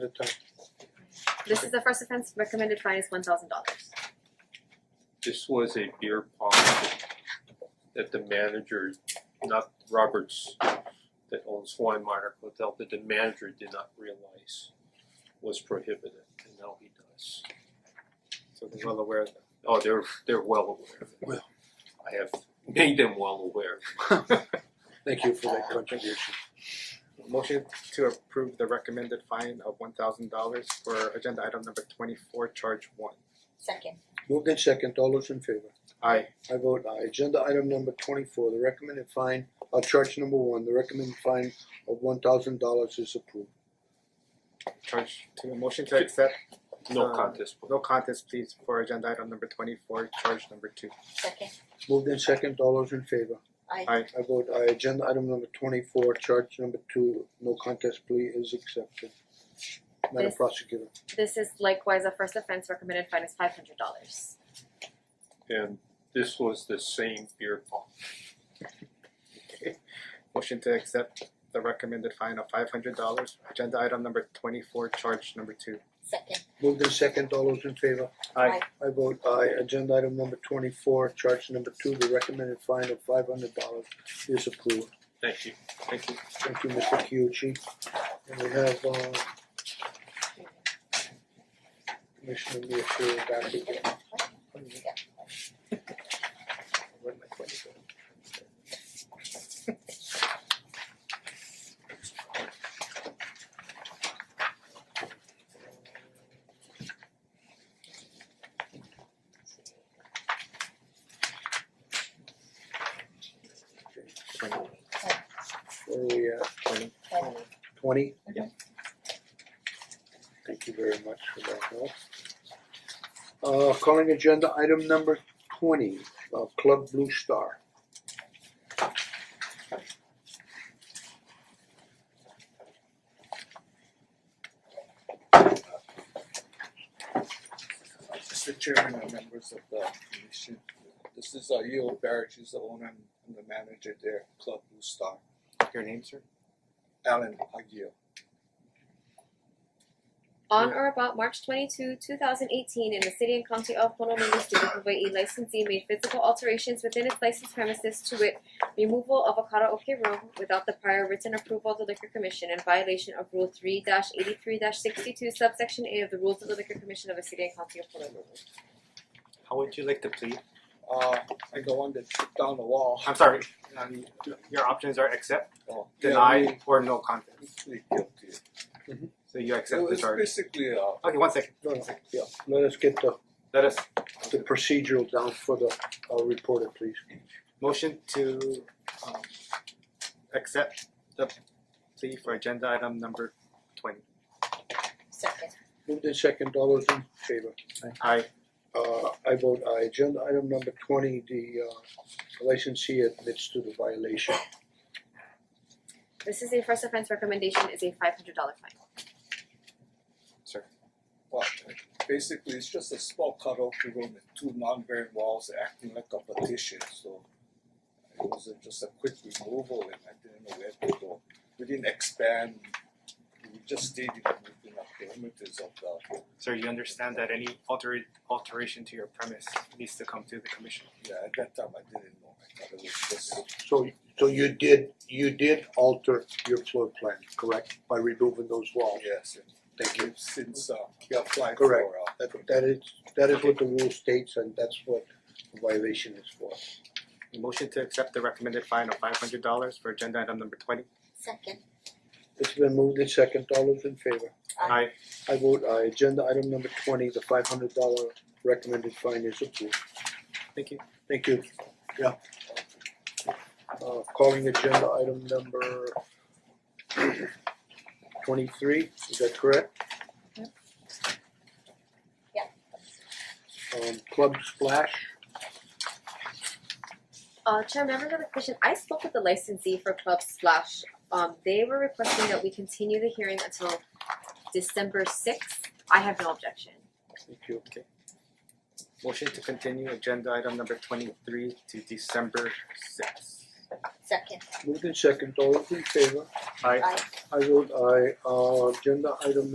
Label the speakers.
Speaker 1: Good time.
Speaker 2: This is the first offense, recommended fine is one thousand dollars.
Speaker 1: This was a beer pong that- that the manager, not Roberts, that owns Hawaiian Monarch Hotel, that the manager did not realize was prohibited, and now he does. So they're well aware of that. Oh, they're they're well aware of it.
Speaker 3: Well.
Speaker 1: I have made them well aware.
Speaker 3: Thank you for that contribution.
Speaker 4: Motion to approve the recommended fine of one thousand dollars for agenda item number twenty-four, charge one.
Speaker 5: Second.
Speaker 3: Moved in second, all those in favor?
Speaker 4: Aye.
Speaker 3: I vote aye. Agenda item number twenty-four, the recommended fine, uh charge number one, the recommended fine of one thousand dollars is approved.
Speaker 4: Charge two, motion to accept
Speaker 1: No
Speaker 4: Uh,
Speaker 1: contest.
Speaker 4: no contest please for agenda item number twenty-four, charge number two.
Speaker 5: Second.
Speaker 3: Moved in second, all those in favor?
Speaker 5: Aye.
Speaker 4: Aye.
Speaker 3: I vote aye. Agenda item number twenty-four, charge number two, no contest plea is accepted. Madam
Speaker 2: Yes.
Speaker 3: Prosecutor.
Speaker 2: This is likewise a first offense, recommended fine is five hundred dollars.
Speaker 1: And this was the same beer pong.
Speaker 4: Okay. Motion to accept the recommended fine of five hundred dollars, agenda item number twenty-four, charge number two.
Speaker 5: Second.
Speaker 3: Moved in second, all those in favor?
Speaker 4: Aye.
Speaker 3: I vote aye. Agenda item number twenty-four, charge number two, the recommended fine of five hundred dollars is approved.
Speaker 1: Thank you.
Speaker 4: Thank you.
Speaker 3: Thank you, Mr. Kyuchi. And we have uh Commissioner Miyashiro back again.
Speaker 4: Where'd my twenty go? Twenty.
Speaker 3: Where are we at? Twenty?
Speaker 5: Twenty.
Speaker 3: Twenty?
Speaker 5: Yeah.
Speaker 3: Thank you very much for that help. Uh calling agenda item number twenty, uh Club Blue Star.
Speaker 6: Mr. Chairman and members of the commission, this is uh Yul Barrett, he's the owner and- and the manager there, Club Blue Star,
Speaker 4: Your name, sir?
Speaker 6: Alan Aguirre.
Speaker 2: On
Speaker 4: Yeah.
Speaker 2: or about March twenty-two, two thousand eighteen, in the city and county of Honolulu, state of Hawaii, licensee made physical alterations within its licensed premises to wit, removal of a karaoke room without the prior written approval of the liquor commission in violation of Rule three eighty-three sixty-two subsection A of the Rules of the Liquor Commission of the city and county of Honolulu.
Speaker 4: How would you like to plead?
Speaker 6: Uh I'm the one that took down the wall.
Speaker 4: I'm sorry, um your options are accept,
Speaker 6: Oh, yeah,
Speaker 4: deny, or no contest.
Speaker 6: we- we guilty.
Speaker 4: So you
Speaker 6: So
Speaker 4: accept the
Speaker 6: it's
Speaker 4: charge.
Speaker 6: basically uh
Speaker 4: Okay, one second,
Speaker 3: No, no, yeah, let us get the
Speaker 4: let us,
Speaker 3: the procedural down for the uh reporter, please.
Speaker 4: motion to um accept the plea for agenda item number twenty.
Speaker 5: Second.
Speaker 3: Moved in second, all those in favor?
Speaker 4: Aye.
Speaker 3: Uh I vote aye. Agenda item number twenty, the uh licensee admits to the violation.
Speaker 2: This is a first offense, recommendation is a five hundred dollar fine.
Speaker 6: well basically it's just a small karaoke room with two non-bearing walls acting like a partition, so it was a- just a quick removal and I didn't know where to go. We didn't expand, we just stayed in within the perimeters of the
Speaker 4: Sir, you understand that any alter- alteration to your premise needs to come to the commission.
Speaker 6: Yeah, at that time I didn't know, I thought it was just,
Speaker 3: So so you did you did alter your floor plan, correct? By removing those walls?
Speaker 6: yes,
Speaker 3: Thank
Speaker 6: and
Speaker 3: you.
Speaker 6: we've since uh
Speaker 3: Yeah,
Speaker 6: applied for
Speaker 3: correct.
Speaker 6: uh
Speaker 3: That that is that is what the rule states and that's what the violation is for.
Speaker 4: Motion to accept the recommended fine of five hundred dollars for agenda item number twenty.
Speaker 5: Second.
Speaker 3: It's been moved in second, all those in favor?
Speaker 4: Aye.
Speaker 3: I vote aye. Agenda item number twenty, the five hundred dollar recommended fine is approved.
Speaker 4: Thank you.
Speaker 3: Thank you. Yeah. Uh calling agenda item number twenty-three, is that correct?
Speaker 5: Yeah.
Speaker 3: Um Club Splash,
Speaker 2: Uh, Chair, members of the commission, I spoke with the licensee for Club Splash. Um, they were requesting that we continue the hearing until December sixth. I have no objection.
Speaker 3: thank you.
Speaker 4: Motion to continue agenda item number twenty-three to December sixth.
Speaker 5: Second.
Speaker 3: Moved in second, all those in favor?
Speaker 4: Aye.
Speaker 5: Aye.
Speaker 3: I vote aye. Uh agenda item